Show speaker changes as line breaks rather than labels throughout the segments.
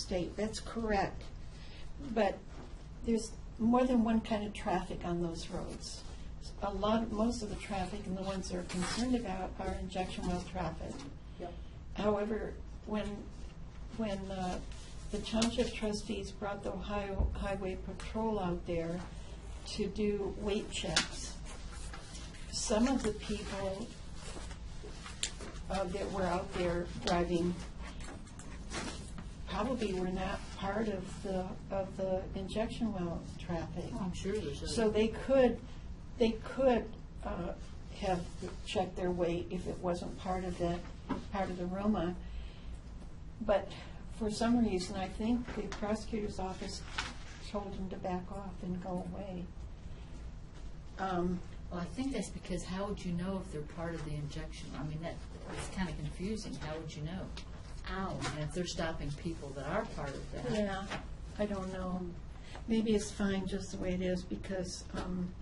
state, that's correct. But there's more than one kind of traffic on those roads. A lot, most of the traffic and the ones they're concerned about are injection well traffic.
Yep.
However, when, when uh, the township trustees brought the Ohio Highway Patrol out there to do weight checks, some of the people uh, that were out there driving probably were not part of the, of the injection well traffic.
Oh, I'm sure there's a.
So they could, they could uh, have checked their weight if it wasn't part of the, part of the Roma. But for some reason, I think the prosecutor's office told them to back off and go away. Um,
Well, I think that's because how would you know if they're part of the injection? I mean, that, it's kind of confusing. How would you know? Ow. And if they're stopping people that are part of that.
Yeah, I don't know. Maybe it's fine just the way it is because, um,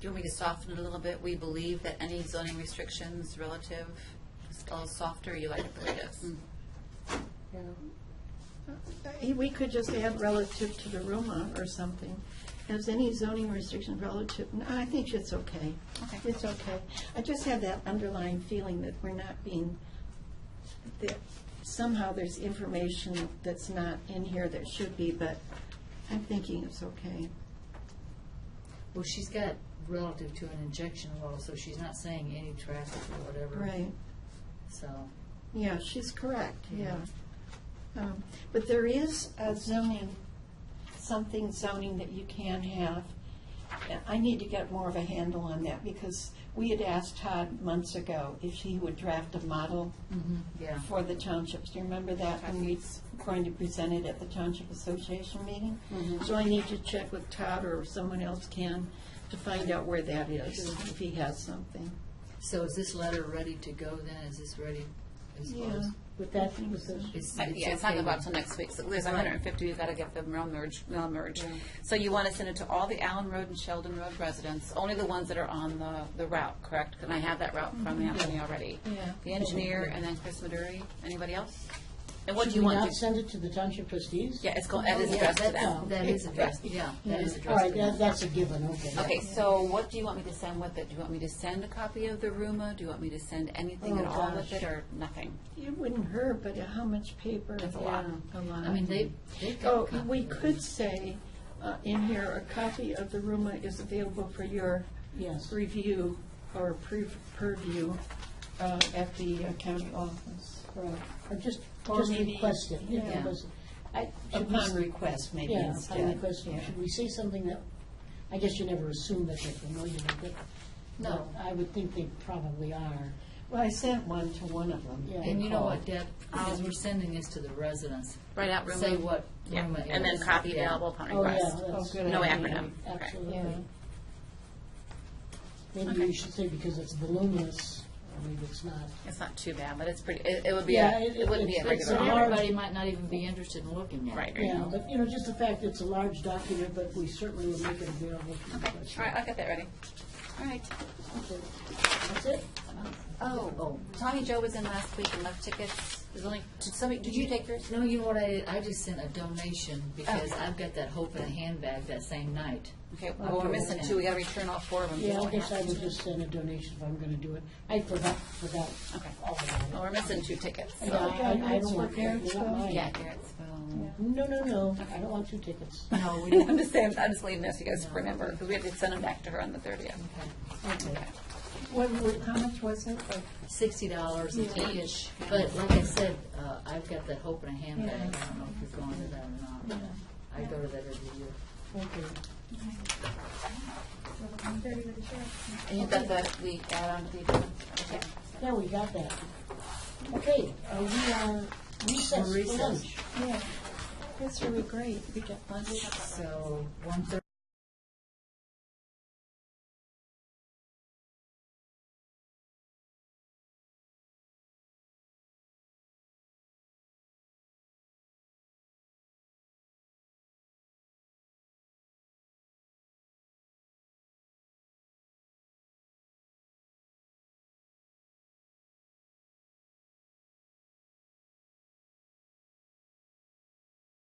Do you want me to soften it a little bit? We believe that any zoning restrictions relative is a little softer, you like it the way it is.
Uh, We could just add relative to the Roma or something. Has any zoning restriction relative, no, I think it's okay.
Okay.
It's okay. I just have that underlying feeling that we're not being, that somehow there's information that's not in here that should be, but I'm thinking it's okay.
Well, she's got relative to an injection well, so she's not saying any traffic or whatever.
Right.
So,
Yeah, she's correct, yeah. Um, But there is a zoning, something zoning that you can have. And I need to get more of a handle on that because we had asked Todd months ago if he would draft a model
yeah.
for the townships. Do you remember that? When we were going to present it at the Township Association meeting? So I need to check with Todd or if someone else can to find out where that is, if he has something.
So is this letter ready to go then? Is this ready as far as?
With that position.
It's-
Uh, Yeah, it's not
okay
gonna go out
then?
till next week, so there's hundred and fifty, we've gotta get the mail merge, mail merge.
Yeah.
So you wanna send it to all the Allen Road and Sheldon Road residents, only the ones that are on the, the route, correct? Can I have that route from Anthony already?
Yeah.
The engineer and then Chris Maduri, anybody else? And what do
Should
you
we
want
not
to?
send it to the township trustees?
Yeah, it's going, that is
Yeah,
addressed to
that-
them.
That is addressed, yeah, that is
All
addressed.
right,
to them.
that, that's a given, okay.
Okay, so what do you want me to send with it? Do you want me to send a copy of the Ruma? Do you want me to send anything at
Oh,
all with
gosh.
it or nothing?
It wouldn't hurt, but how much paper?
That's a lot.
A lot.
I mean, they, they've got.
Oh,
copies.
we could say uh, in here, a copy of the RUMA is available for your
Yes.
review or pre- purview uh, at the uh, county office.
Right. Or just,
Or
just
maybe-
request it.
yeah.
Because I- should we-
Upon request, maybe
Yeah,
instead.
upon request,
Yeah.
should we say something that, I guess you never assume that they're familiar with it.
No.
but I would think they probably are.
Well, I sent one to one of them.
Yeah.
And you know what, Deb, as we're sending this to the residents,
Right out Ruma?
say what
Yeah,
Ruma is.
and then copy
Yeah.
available upon
Oh, yeah,
request.
that's,
good
No
idea.
acronym. Okay.
Yeah.
absolutely. Maybe you should say because it's voluminous, or maybe it's not.
It's not too bad, but it's pretty, it, it would be,
Yeah,
a-
it-
it wouldn't be
it's-
a
it's
So
an
regular.
hour.
everybody might not even be interested in looking at it.
Right, right.
Yeah, but, you know, just the fact it's a large document, but we certainly will make it available to the
All right,
question.
I'll get that ready. All right.
That's it?
Oh, Tommy Joe was in last week and left tickets. There's only, did somebody, did you take yours? Oh.
No, you know what I did? I just sent a donation because I've got that Hope in a Handbag that same night.
Okay, well, we're missing two. We gotta return all four of them.
Yeah, I
Don't we
guess I
have
would
to?
just send a donation if I'm gonna do it. I forgot, forgot
Okay.
all about it.
Well, we're missing two tickets,
Yeah,
so.
I, I- I don't want,
Yeah.
you want mine.
Yeah, Garrettsville.
No, no, no, I don't want two tickets.
No, we
I'm
didn't.
just saying, I'm just leaving this, you guys remember, because we have to send them back to her on the thirtieth.
Okay.
What, what- how much was it? Like,
Sixty dollars
Yeah.
each, but like I said, uh, I've got that Hope in a Handbag. I don't know if you're going to that or not. I go to that every year.
Okay.
And you've got the, the add-on to the agenda? Okay.
Now we got that. Okay, uh, we are recessed for
Recess.
lunch.
Yeah, that's really great. We get lunch.
So, 1:30